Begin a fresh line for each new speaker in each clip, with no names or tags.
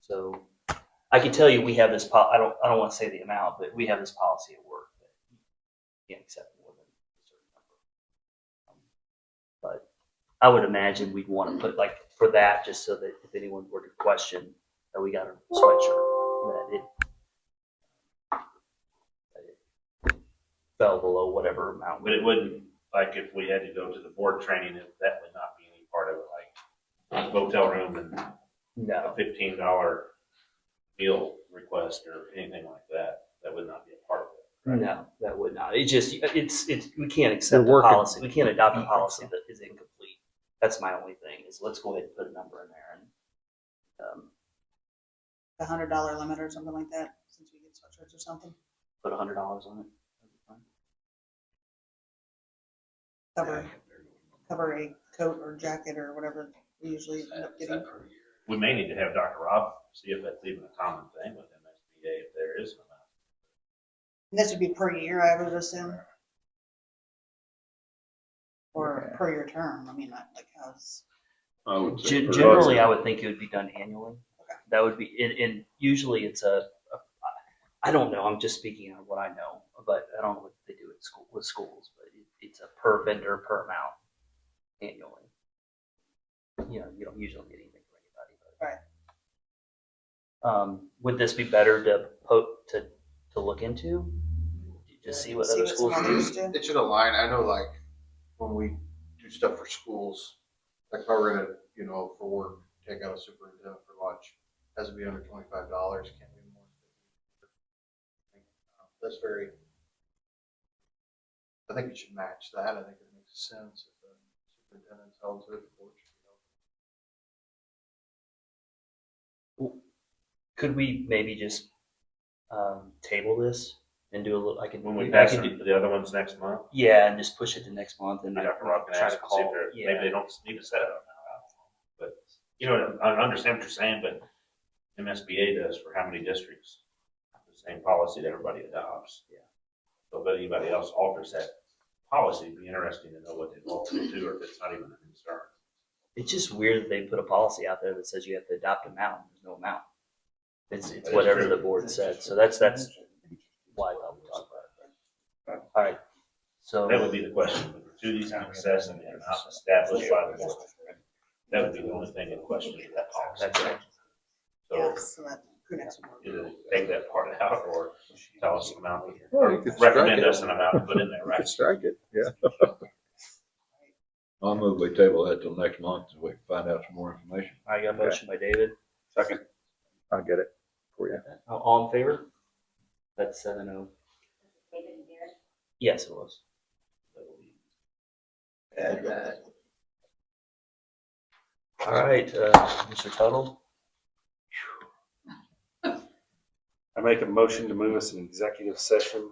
So I can tell you, we have this, po- I don't, I don't want to say the amount, but we have this policy at work that you can't accept more than a certain number. But I would imagine we'd want to put like for that, just so that if anyone were to question that we got a sweatshirt, that it that it fell below whatever amount.
But it wouldn't, like, if we had to go to the board training, it- that would not be any part of it, like motel room and
No.
a fifteen dollar meal request or anything like that. That would not be a part of it.
No, that would not. It just, it's, it's, we can't accept
We're
a
working.
policy. We can't adopt a policy that is incomplete. That's my only thing is let's go ahead and put a number in there and, um,
the hundred dollar limit or something like that, since we get sweatshirts or something,
put a hundred dollars on it.
cover, cover a coat or jacket or whatever we usually end up getting.
We may need to have Dr. Rob see if that's even a common thing with MSBA, if there is an amount.
And this would be per year, I would assume. Or per year term, I mean, not like how's,
I would say
Gen-
per-
Generally, I would think it would be done annually. That would be, and, and usually it's a, a- I don't know, I'm just speaking out of what I know, but I don't know what they do at school, with schools, but it, it's a per vendor, per amount annually. You know, you don't usually get anything for anybody, but.
Right.
Um, would this be better to po, to, to look into? Just see what
see
other
what some
schools
others
do?
do.
It should align, I know like, when we do stuff for schools, like if I were to, you know, for work, take out a superintendent for lunch, has to be under twenty-five dollars, can't be more. than fifty. That's very, I think it should match that, I think it makes sense if the superintendent's held to it. the board should know.
Could we maybe just, um, table this and do a little, I can,
When we
I
pass
can do-
the the other ones next month,
Yeah, and just push it to next month and I
Dr. Rob can
try to
ask and see
call.
if they're, maybe
Yeah,
they don't need to set it up now. I don't know. But, you know, I I understand what you're saying, but MSBA does for how many districts? The same policy that everybody adopts.
Yeah.
So if anybody else alters that policy, it'd be interesting to know what they've altered to, or if it's not even a concern.
it's just weird that they put a policy out there that says you have to adopt a amount. There's no amount. It's, it's
That is
whatever
true.
the board said. So that's, that's why I thought we talked about it. All right. So
That would be the question, do these in excess and they're not established by the board? That would be the only thing in question of that
that's
policy.
right.
So
yeah, so that, who knows?
either take that part out or tell us an amount,
Well,
or
you could strike
recommend
it.
us an amount to put in there,
I
right?
could strike it, yeah.
I'll move we table that till next month, so we can find out some more information.
I got a motion by David.
I'll get it for you.
All- All in favor? That's seven oh. Yes, it was.
Add that.
All right, uh, Mr. Tuttle,
I make a motion to move us in executive session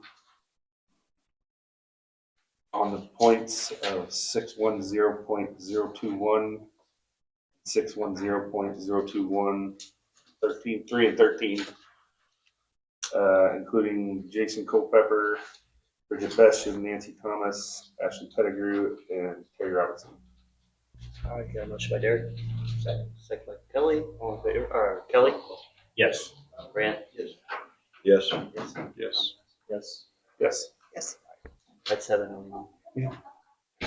on the points of six one zero point zero two one, six one zero point zero two one, thirteen, three and thirteen, uh, including Jason Culpepper, Bridget Besham, Nancy Thomas, Ashley Pettigrew, and Terry Robinson.
all right, got a motion by Derek. Second. Second by Kelly, all in favor, uh, Kelly,
Yes.
Grant,
Yes.
yes,
Yes.
yes.
Yes.
Yes,
That's seven oh.